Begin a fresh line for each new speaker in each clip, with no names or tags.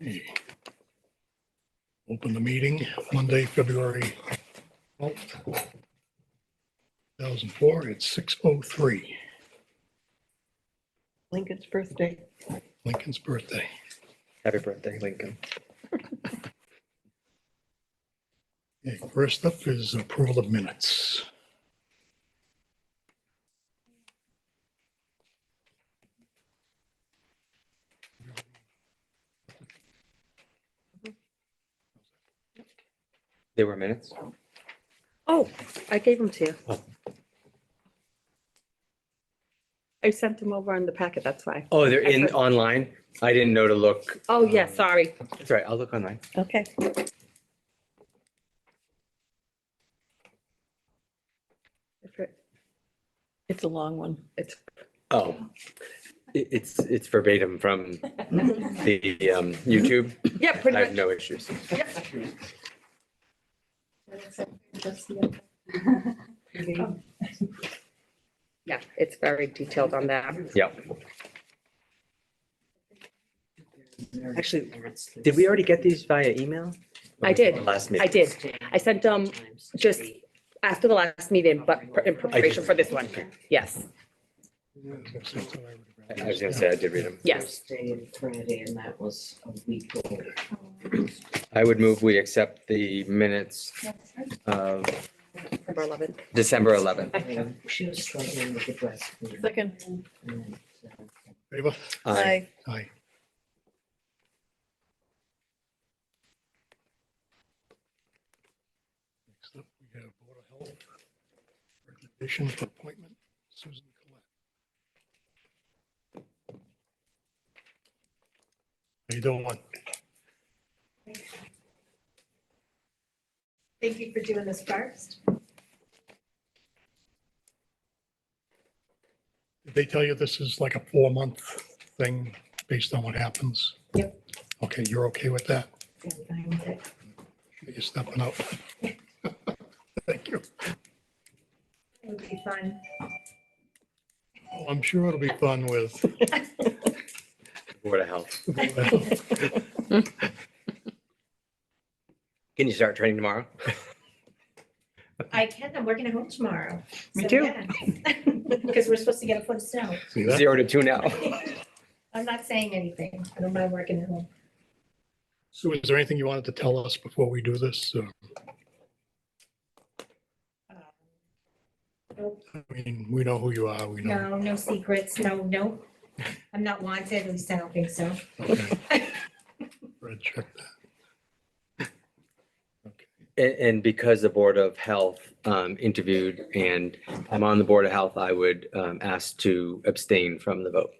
Okay. Open the meeting Monday, February 12th, 2004, at 6:03,
Lincoln's birthday.
Lincoln's birthday.
Happy birthday, Lincoln.
Okay, First up is approval of minutes.
There were minutes.
Oh, I gave them to you.
Oh.
I sent them over in the packet, that's why.
Oh, they're in online. I didn't know to look.
Oh, yeah, sorry.
That's right. I'll look online.
Okay.
If it-
It's a long one.
It's,
Oh, It- it's, it's verbatim from the um, YouTube.
yeah,
I
pretty
have
much.
no issues.
Yeah, it's very detailed on that.
Yep.
Actually,
Did we already get these via email?
I did.
Last
I
meeting.
did. I sent them just after the last meeting, but in preparation for this one. Yes,
I was gonna say, I did read them.
yes.
Thursday and Friday, and that was a week old.
I would move we accept the minutes of
Number 11.
December 11th.
And um, She was struggling with the breast.
Second.
And, uh,
Favor?
Aye.
Aye. Next up, we have Board of Health recommendation for appointment, Susan Collette. How you doing?
Thank you for doing this first.
Did they tell you this is like a four-month thing based on what happens?
Yep.
Okay, you're okay with that?
Okay.
You're stepping up. Thank you.
It would be fun.
Well, Oh, I'm sure it'll be fun with
Board of Health.
Well,
Can you start training tomorrow?
I can, I'm working at home tomorrow.
Me
So,
too.
yeah. Because we're supposed to get a foot of snow.
see that?
Zero to two now.
I'm not saying anything. I don't mind working at home.
So is there anything you wanted to tell us before we do this? Uh, I mean, we know who you are, we know.
No, no secrets, no, no. I'm not wanted, at least I don't think so.
Okay. Red check that.
And, and because the Board of Health um, interviewed and I'm on the Board of Health, I would um, ask to abstain from the vote.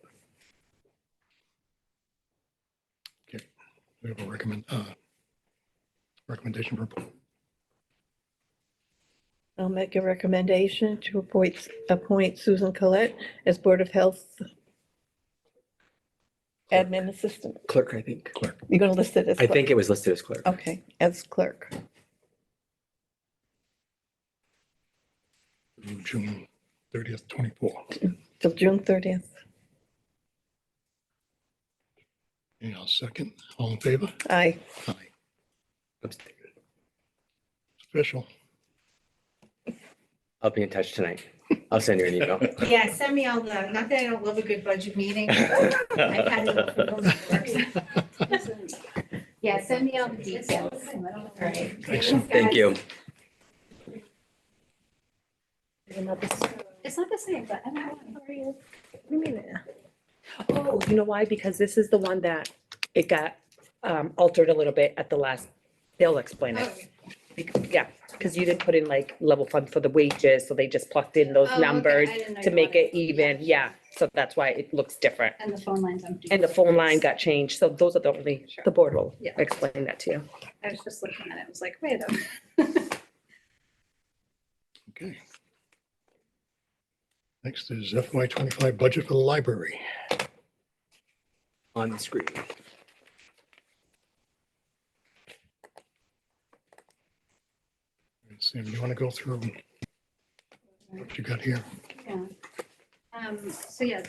We have a recommend, uh, recommendation for,
I'll make a recommendation to appoint, appoint Susan Collette as Board of Health Admin Assistant.
Clerk, I think. Clerk.
You're going to list it as.
I
clerk.
think it was listed as clerk.
Okay, as clerk.
June thirtieth, twenty-four.
Till June 30th.
And I'll second. All in favor?
Aye.
Aye.
Abstain.
It's Official.
I'll be in touch tonight. I'll send you an email.
Yeah, send me all the, not that I don't love a good budget meeting. I've had enough of those before. Yeah, send me all the details. All right.
Thank you.
It's not the same, but I'm not
Oh, you know why? Because this is the one that it got um, altered a little bit at the last, they'll explain it. Bec- Yeah, because you didn't put in like level fund for the wages, so they just plucked in
Oh,
those numbers to make it even, yeah. So that's why it looks different.
And the phone line's empty.
And the phone line got changed, so those are the only, the board will
Yeah.
explain that to you.
I was just looking at it, I was like, wait a minute.
Okay. Next is FY twenty-five budget for the library.
On the screen.
Sam, you want to go through what you got here?
Yeah. Um, so yeah,